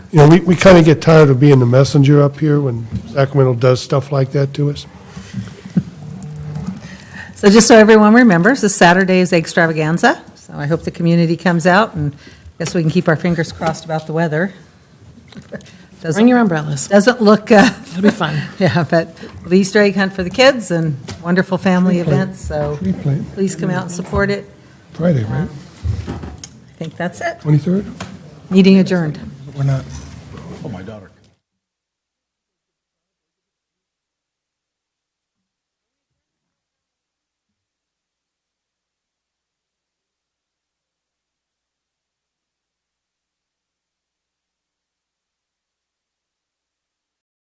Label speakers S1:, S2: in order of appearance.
S1: You know, we, we kind of get tired of being the messenger up here when Sacramento does stuff like that to us.
S2: So just so everyone remembers, this Saturday is Extravaganza, so I hope the community comes out, and I guess we can keep our fingers crossed about the weather.
S3: Bring
S2: Doesn't,
S3: your umbrellas.
S2: doesn't look, uh,
S3: It'll be fun.
S2: yeah, but the Easter egg hunt for the kids and wonderful family events, so
S1: Tree plant
S2: please come out and support it.
S1: Friday, right?
S2: I think that's it.
S1: 23rd?
S2: Meeting adjourned.
S4: We're not,